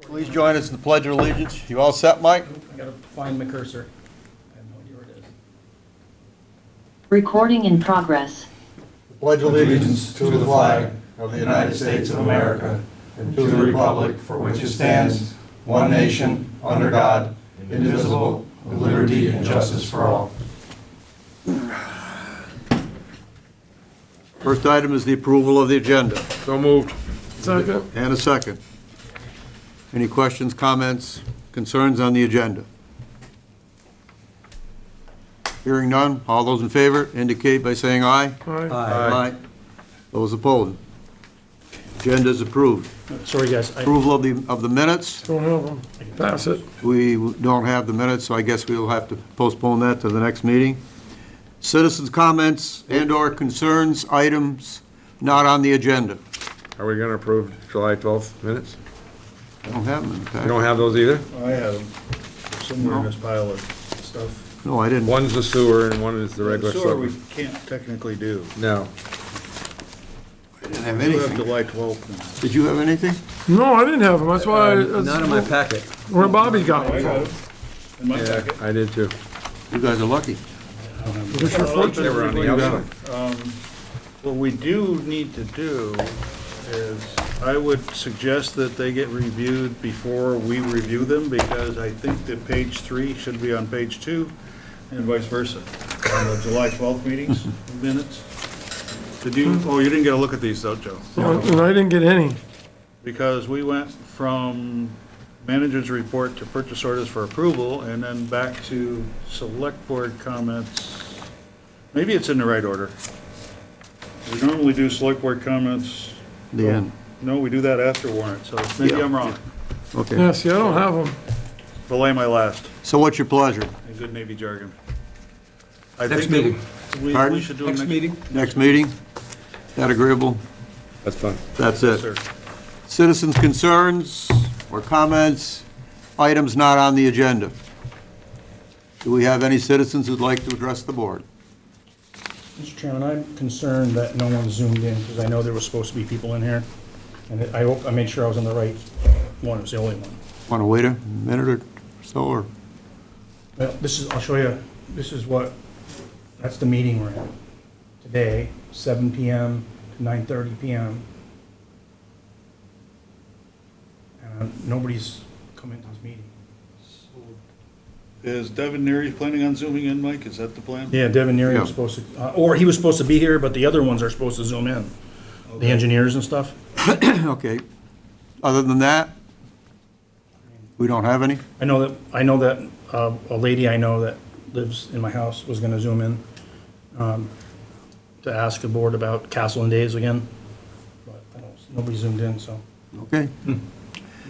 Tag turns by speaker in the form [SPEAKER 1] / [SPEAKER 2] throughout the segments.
[SPEAKER 1] Please join us in the Pledge of Allegiance. You all set, Mike?
[SPEAKER 2] I gotta find my cursor. I have no idea where it is.
[SPEAKER 3] Recording in progress.
[SPEAKER 1] Pledge
[SPEAKER 4] allegiance to the flag of the United States of America and to the republic for which it stands, one nation, under God, indivisible, with liberty and justice for all.
[SPEAKER 1] First item is the approval of the agenda,
[SPEAKER 4] So moved.
[SPEAKER 1] and a second. Any questions, comments, concerns on the agenda? Hearing none, all those in favor indicate by saying aye. Aye. Those opposed? Agenda is approved.
[SPEAKER 2] Sorry, guys, I,
[SPEAKER 1] Approval of the, of the minutes,
[SPEAKER 4] Don't have them. Pass it.
[SPEAKER 1] we don't have the minutes, so I guess we'll have to postpone that to the next meeting. Citizens' comments and/or concerns, items not on the agenda.
[SPEAKER 5] Are we gonna approve July 12th minutes?
[SPEAKER 1] I don't have them in the
[SPEAKER 5] You
[SPEAKER 1] packet.
[SPEAKER 5] don't have those either?
[SPEAKER 6] I had them somewhere in this pile of stuff.
[SPEAKER 1] No, I didn't.
[SPEAKER 5] One's the sewer and one is the regular
[SPEAKER 6] Sewer we
[SPEAKER 5] sewer.
[SPEAKER 6] can't technically do.
[SPEAKER 5] No.
[SPEAKER 1] I didn't have
[SPEAKER 6] We have
[SPEAKER 1] anything.
[SPEAKER 6] July 12th.
[SPEAKER 1] Did you have anything?
[SPEAKER 4] No, I didn't have them, that's why,
[SPEAKER 7] Not in my
[SPEAKER 4] that's
[SPEAKER 7] packet.
[SPEAKER 4] where Bobby got them from.
[SPEAKER 6] In my
[SPEAKER 5] Yeah,
[SPEAKER 6] packet.
[SPEAKER 5] I did too.
[SPEAKER 1] You guys are lucky.
[SPEAKER 4] It's your fault.
[SPEAKER 5] They were on the outside.
[SPEAKER 6] What we do need to do is, I would suggest that they get reviewed before we review them, because I think that page three should be on page two, and vice versa, on the July 12th meetings, minutes. Did you, oh, you didn't get a look at these though, Joe?
[SPEAKER 4] And I didn't get any.
[SPEAKER 6] because we went from manager's report to purchase orders for approval, and then back to select board comments. Maybe it's in the right order. We normally do select board comments,
[SPEAKER 1] The end.
[SPEAKER 6] no, we do that after warrant, so maybe I'm wrong.
[SPEAKER 1] Okay.
[SPEAKER 4] Yeah, see, I don't have them.
[SPEAKER 6] Belay my last,
[SPEAKER 1] So what's your pleasure?
[SPEAKER 6] in good Navy jargon. I
[SPEAKER 7] Next
[SPEAKER 6] think that
[SPEAKER 7] meeting.
[SPEAKER 6] We,
[SPEAKER 1] Pardon?
[SPEAKER 6] we should do it next.
[SPEAKER 1] Next meeting? That agreeable?
[SPEAKER 5] That's fun.
[SPEAKER 1] That's it.
[SPEAKER 6] Sir,
[SPEAKER 1] Citizens' concerns or comments, items not on the agenda. Do we have any citizens who'd like to address the board?
[SPEAKER 2] Mr. Chairman, I'm concerned that no one zoomed in, because I know there was supposed to be people in here. And I hope, I made sure I was on the right one, it was the only one.
[SPEAKER 1] Want to wait a minute or so, or?
[SPEAKER 2] Well, this is, I'll show you, this is what, that's the meeting we're in. Today, seven PM to nine thirty PM. And uh, nobody's come into this meeting.
[SPEAKER 6] Is Devin Neary planning on zooming in, Mike? Is that the plan?
[SPEAKER 2] Yeah, Devin Neary was
[SPEAKER 1] Yeah.
[SPEAKER 2] supposed to, uh, or he was supposed to be here, but the other ones are supposed to zoom in, the engineers and stuff.
[SPEAKER 1] Okay. Other than that, we don't have any?
[SPEAKER 2] I know that, I know that uh, a lady I know that lives in my house was gonna zoom in um, to ask the board about Castle and Days again, but I don't- nobody zoomed in, so.
[SPEAKER 1] Okay.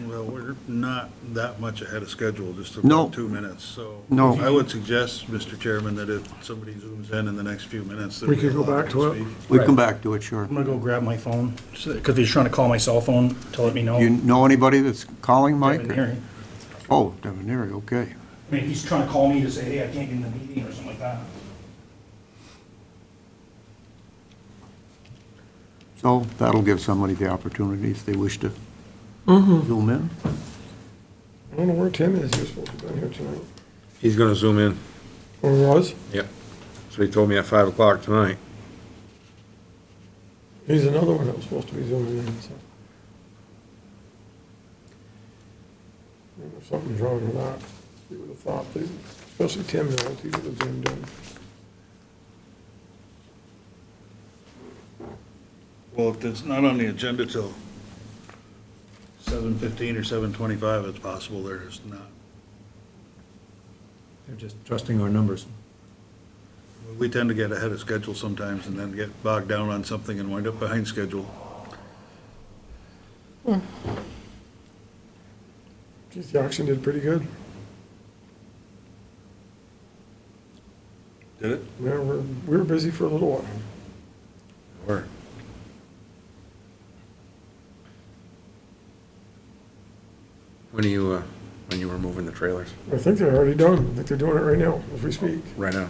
[SPEAKER 6] Well, we're not that much ahead of schedule, just
[SPEAKER 1] No.
[SPEAKER 6] about two minutes, so.
[SPEAKER 1] No.
[SPEAKER 6] I would suggest, Mr. Chairman, that if somebody zooms in in the next few minutes, that
[SPEAKER 4] We
[SPEAKER 6] we
[SPEAKER 4] could go
[SPEAKER 6] allow
[SPEAKER 4] back
[SPEAKER 6] them
[SPEAKER 4] to it.
[SPEAKER 6] speak.
[SPEAKER 1] We come back to it, sure.
[SPEAKER 2] I'm gonna go grab my phone, because he's trying to call my cell phone to let me know.
[SPEAKER 1] You know anybody that's calling, Mike?
[SPEAKER 2] Devin Neary.
[SPEAKER 1] Oh, Devin Neary, okay.
[SPEAKER 2] I mean, he's trying to call me to say, hey, I can't get in the meeting or something like that.
[SPEAKER 1] So that'll give somebody the opportunity if they wish to zoom in.
[SPEAKER 4] I don't know where Tim is, he was supposed to be down here tonight.
[SPEAKER 5] He's gonna zoom in.
[SPEAKER 4] Or was?
[SPEAKER 5] Yep. So he told me at 5 o'clock tonight.
[SPEAKER 4] He's another one that was supposed to be zooming in, so. I don't know if Something's wrong with that. You would have thought, that- especially Tim, knows he would have zoomed in.
[SPEAKER 6] Well, if it's not on the agenda till seven fifteen or seven twenty-five, it's possible there is not.
[SPEAKER 7] They're just trusting our numbers.
[SPEAKER 6] We tend to get ahead of schedule sometimes and then get bogged down on something and wind up behind schedule.
[SPEAKER 4] Geez, the auction did pretty good.
[SPEAKER 6] Did it?
[SPEAKER 4] We were, we were busy for a little while.
[SPEAKER 5] Or When are you, uh, when you were moving the trailers?
[SPEAKER 4] I think they're already done. I think they're doing it right now, as we speak.
[SPEAKER 5] Right now.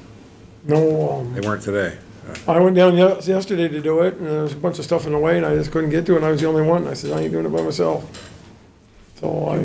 [SPEAKER 4] No, um,
[SPEAKER 5] They weren't today. Uh,
[SPEAKER 4] I went down yes- yesterday to do it, and there was a bunch of stuff in the way, and I just couldn't get to it, and I was the only one. I said, I ain't doing it by myself. So I